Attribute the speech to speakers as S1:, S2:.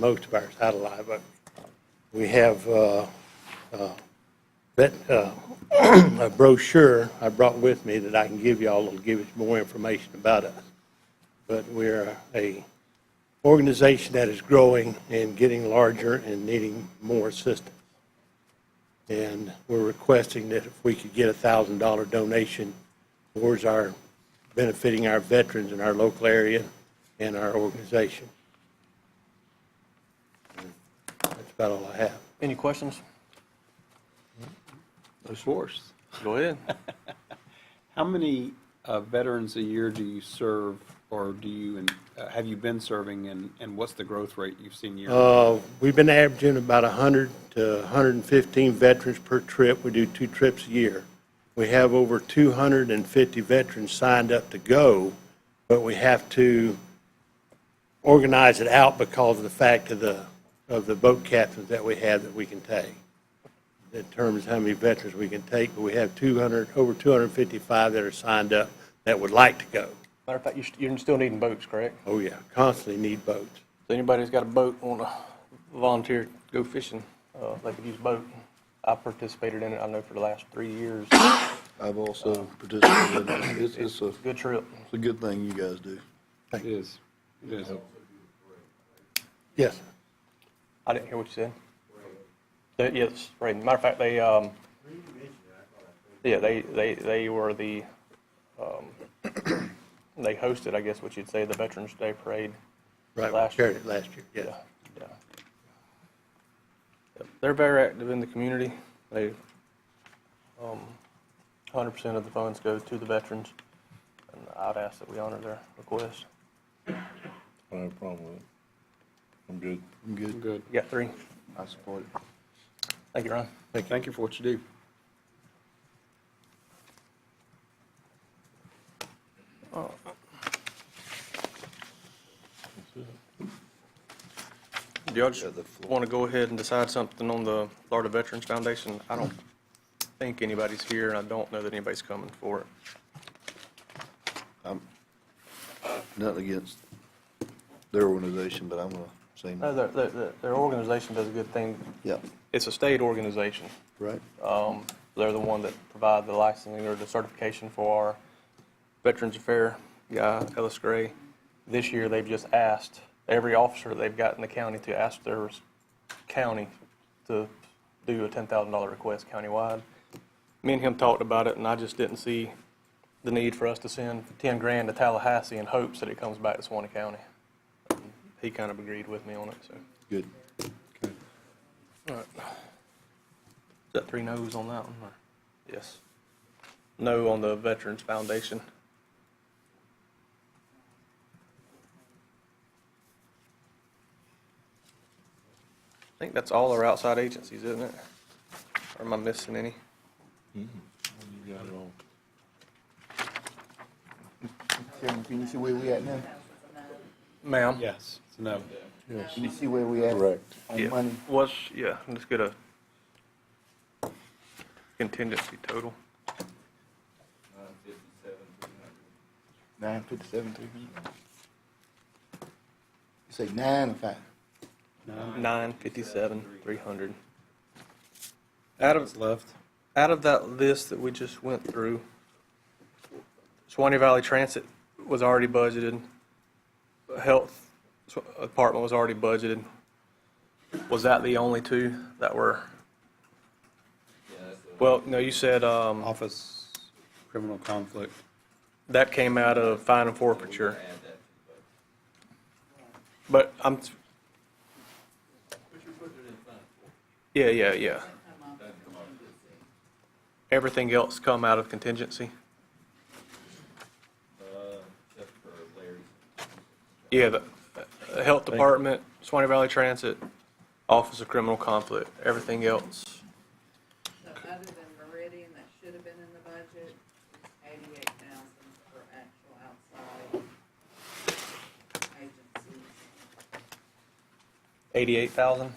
S1: most of our satellite, but we have uh, uh, that uh, a brochure I brought with me that I can give y'all, that'll give us more information about us. But we're a organization that is growing and getting larger and needing more assistance. And we're requesting that if we could get a thousand dollar donation towards our, benefiting our veterans in our local area and our organization. That's about all I have.
S2: Any questions?
S3: Of course.
S2: Go ahead.
S3: How many uh, veterans a year do you serve, or do you, and uh, have you been serving, and, and what's the growth rate you've seen year?
S1: Uh, We've been averaging about 100 to 115 veterans per trip. We do two trips a year. We have over 250 veterans signed up to go, but we have to organize it out because of the fact of the, of the boat captains that we have that we can take. That determines how many veterans we can take, but we have 200, over 255 that are signed up that would like to go.
S2: Matter of fact, you're, st- you're still needing boats, correct?
S1: Oh, yeah, constantly need boats.
S2: So anybody who's got a boat, want to volunteer, to go fishing, uh, they could use a boat. I participated in it, I know, for the last three years.
S4: I've also participated. in it. It's, it's a, it's
S2: Good trip.
S4: a good thing you guys do.
S3: It is, it is.
S1: Yes,
S2: I didn't hear what you said. That- Yes, right. Matter of fact, they, um, yeah, they, they, they were the, um, they hosted, I guess what you'd say, the Veterans Day Parade.
S1: right, we
S2: Last
S1: shared
S2: year.
S1: it last year, yes.
S2: Yeah, yeah. Yep, They're very active in the community. They, um, hundred percent of the funds go to the veterans, and I'd ask that we honor their request.
S4: I have a problem with it. I'm good. I'm good.
S3: Good.
S2: You got three.
S4: I support it.
S2: Thank you, Ron.
S3: Thank you for what you do.
S2: Do y'all just want to go ahead and decide something on the Florida Veterans Foundation? I don't think anybody's here, and I don't know that anybody's coming for it.
S4: Nothing against their organization, but I'm gonna say
S2: No,
S4: no.
S2: their, their, their- their organization does a good thing.
S4: Yeah,
S2: It's a state organization.
S4: right?
S2: They're the one that provide the licensing or the certification for our Veterans Affair guy, Ellis Gray. This year, they've just asked every officer they've got in the county to ask their county to do a $10,000 request countywide. Me and him talked about it, and I just didn't see the need for us to send 10 grand to Tallahassee in hopes that it comes back to Swanee County. He kind of agreed with me on it, so.
S4: Good.
S2: Is that three no's on that one? or- Yes. No on the Veterans Foundation. I think that's all our outside agencies, isn't it? Or am I missing any?
S5: Chairman, can you see where we at now?
S2: Ma'am?
S3: Yes. No.
S5: Can you see where we at?
S4: Correct.
S5: On money?
S2: What's, yeah, let's get a contingency total.
S5: Nine fifty-seven, three hundred. You say nine or five?
S2: Nine fifty-seven, three hundred. Out
S3: Out
S2: of,
S3: of left.
S2: out of that list that we just went through, Swanee Valley Transit was already budgeted, Health Department was already budgeted. Was that the only two that were? Well, no, you said um,
S3: Office criminal conflict.
S2: that came out of fine and forfeiture. But I'm. Yeah, yeah, yeah. Everything else come out of contingency? Yeah, the, the Health Department, Swanee Valley Transit, Office of Criminal Conflict, everything else.
S6: So other than Meridian, that should have been in the budget, eighty-eight thousand for actual outside agencies.
S2: Eighty-eight thousand?